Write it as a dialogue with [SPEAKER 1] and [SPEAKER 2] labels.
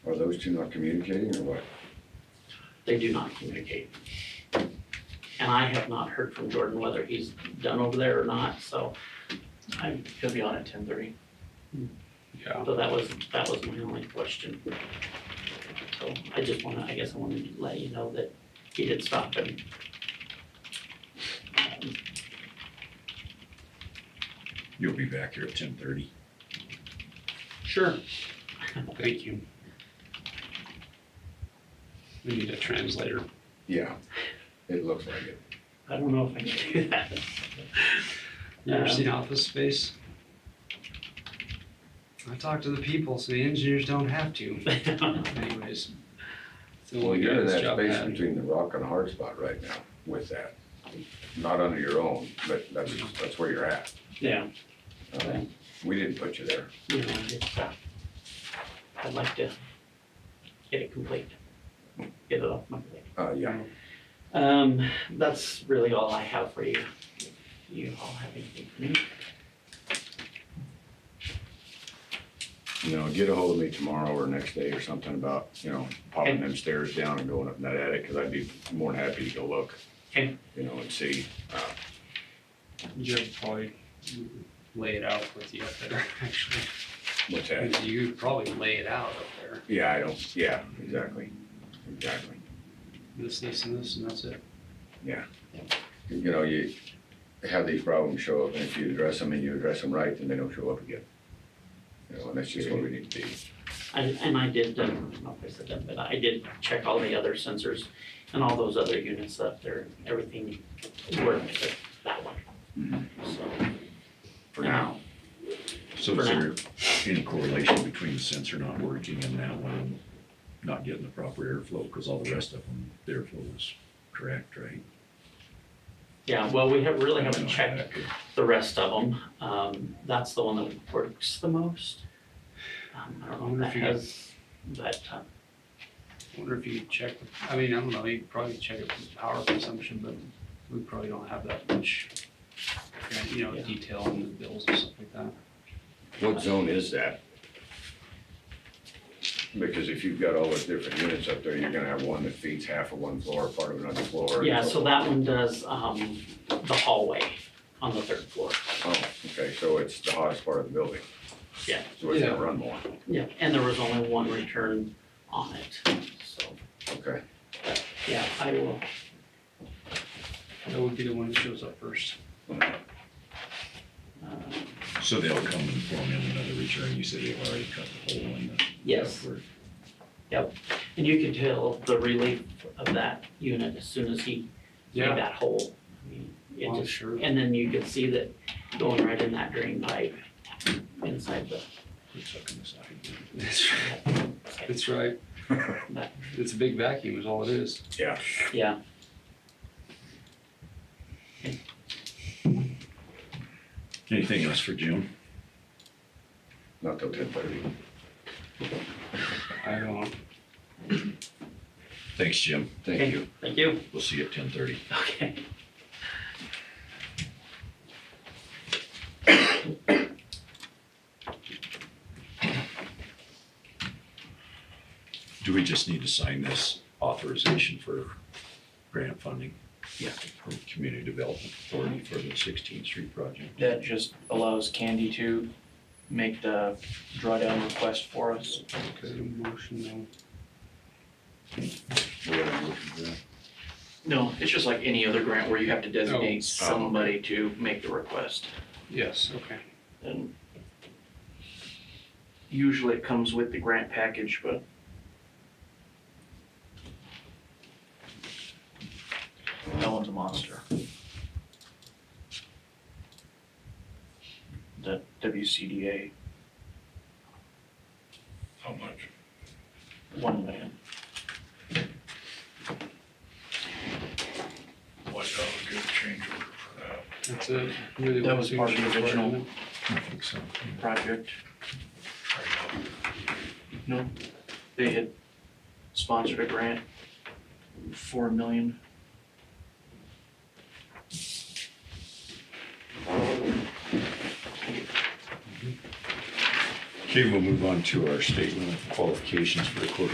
[SPEAKER 1] those two not communicating or what?
[SPEAKER 2] They do not communicate. And I have not heard from Jordan whether he's done over there or not, so I,
[SPEAKER 3] He'll be on at ten thirty.
[SPEAKER 4] Yeah,
[SPEAKER 2] so that was, that was my only question. So I just wanna, I guess I wanted to let you know that he did stop and um,
[SPEAKER 4] you'll be back here at ten thirty.
[SPEAKER 5] Sure. Thank you. We need a translator.
[SPEAKER 1] Yeah, it looks like it.
[SPEAKER 2] I don't know if I can do that.
[SPEAKER 5] You ever
[SPEAKER 2] Yeah.
[SPEAKER 5] seen Office Space? I talk to the people, so the engineers don't have to. Anyways. it's the
[SPEAKER 1] Well,
[SPEAKER 5] only
[SPEAKER 1] you're in
[SPEAKER 5] guidance
[SPEAKER 1] that
[SPEAKER 5] job I
[SPEAKER 1] space
[SPEAKER 5] had.
[SPEAKER 1] between the rock and a hard spot right now with that. Not under your own, but that's, that's where you're at.
[SPEAKER 2] Yeah.
[SPEAKER 1] Um, We didn't put you there.
[SPEAKER 2] You know, it's, uh, I'd like to get it complete, get it off my plate.
[SPEAKER 1] Uh, yeah,
[SPEAKER 2] Um, that's really all I have for you. You all have anything for me?
[SPEAKER 1] you know, get a hold of me tomorrow or next day or something about, you know, popping
[SPEAKER 2] Okay.
[SPEAKER 1] them stairs down and going up in that attic, cause I'd be more than happy to go look.
[SPEAKER 2] Okay.
[SPEAKER 1] You know, and see. Uh,
[SPEAKER 5] Joe probably lay it out with you up there, actually.
[SPEAKER 1] What's that?
[SPEAKER 5] You could probably lay it out up there.
[SPEAKER 1] Yeah, I don't, yeah, exactly, exactly.
[SPEAKER 5] This, this, and this, and that's it.
[SPEAKER 1] You know, you have these problems show up, and if you address them and you address them right, then they don't show up again. You know, and that's just what we need to be.
[SPEAKER 2] I, and I did, uh, I don't know if I said that, but I did check all the other sensors and all those other units up there, everything worked except that one. So,
[SPEAKER 1] For now,
[SPEAKER 4] So is there any correlation between the sensor not working and that one not getting the proper airflow? Because all the rest of them, the airflow was correct, right?
[SPEAKER 2] yeah, well, we have, really haven't checked
[SPEAKER 4] Okay.
[SPEAKER 2] the rest of them. Um, that's the one that works the most. Um, I don't know if that has, but, uh,
[SPEAKER 5] Wonder if you could check, I mean, I don't know, you could probably check it with power consumption, but we probably don't have that much, you know,
[SPEAKER 2] Yeah.
[SPEAKER 5] detail in the bills and stuff like that.
[SPEAKER 1] what zone is that? Because if you've got all those different units up there, you're gonna have one that feeds half of one floor, part of another floor.
[SPEAKER 2] yeah, so that one does, um, the hallway on the third floor.
[SPEAKER 1] Oh, okay, so it's the hottest part of the building.
[SPEAKER 2] Yeah.
[SPEAKER 1] So it's gonna
[SPEAKER 5] Yeah.
[SPEAKER 1] run more,
[SPEAKER 2] Yeah, and there was only one return on it, so,
[SPEAKER 1] okay.
[SPEAKER 2] yeah, I will,
[SPEAKER 5] That would be the one that shows up first.
[SPEAKER 2] uh,
[SPEAKER 4] So they'll come and form in another return. You said they've already cut the hole in the.
[SPEAKER 2] yes.
[SPEAKER 4] Or-
[SPEAKER 2] And you could tell the relief of that unit as soon as he made
[SPEAKER 5] Yeah.
[SPEAKER 2] that hole. I mean, It
[SPEAKER 5] Well,
[SPEAKER 2] just,
[SPEAKER 5] sure.
[SPEAKER 2] and then you could see that going right in that drain pipe inside the,
[SPEAKER 4] It's up in the side.
[SPEAKER 5] That's right. That's right. It's a big vacuum is all it is.
[SPEAKER 1] Yeah,
[SPEAKER 2] yeah.
[SPEAKER 4] Anything else for Jim?
[SPEAKER 1] not till ten thirty.
[SPEAKER 5] I don't,
[SPEAKER 4] Thanks, Jim.
[SPEAKER 2] Okay,
[SPEAKER 1] Thank you.
[SPEAKER 2] Thank you.
[SPEAKER 4] We'll see you at ten thirty.
[SPEAKER 2] Okay.
[SPEAKER 4] Do we just need to sign this authorization for grant funding?
[SPEAKER 2] Yeah.
[SPEAKER 4] From Community Development Authority for the Sixteenth Street project?
[SPEAKER 3] That just allows Candy to make the drawdown request for us.
[SPEAKER 5] is it a motion though?
[SPEAKER 1] We have a motion for that?
[SPEAKER 3] No, it's just like any other grant where you have to
[SPEAKER 5] Oh,
[SPEAKER 3] designate somebody to make the request.
[SPEAKER 5] Yes, okay.
[SPEAKER 3] And usually it comes with the grant package, but no one's a monster. The WCDA,
[SPEAKER 4] How much?
[SPEAKER 3] one million.
[SPEAKER 4] Watch out, get a change order for that.
[SPEAKER 5] That's it. Really
[SPEAKER 3] That
[SPEAKER 5] one
[SPEAKER 3] was part of the
[SPEAKER 5] signature required,
[SPEAKER 3] original.
[SPEAKER 5] isn't it?
[SPEAKER 4] I think so.
[SPEAKER 3] project. No, they had sponsored a grant, four million.
[SPEAKER 4] Okay, we'll move on to our statement of qualifications for the quarter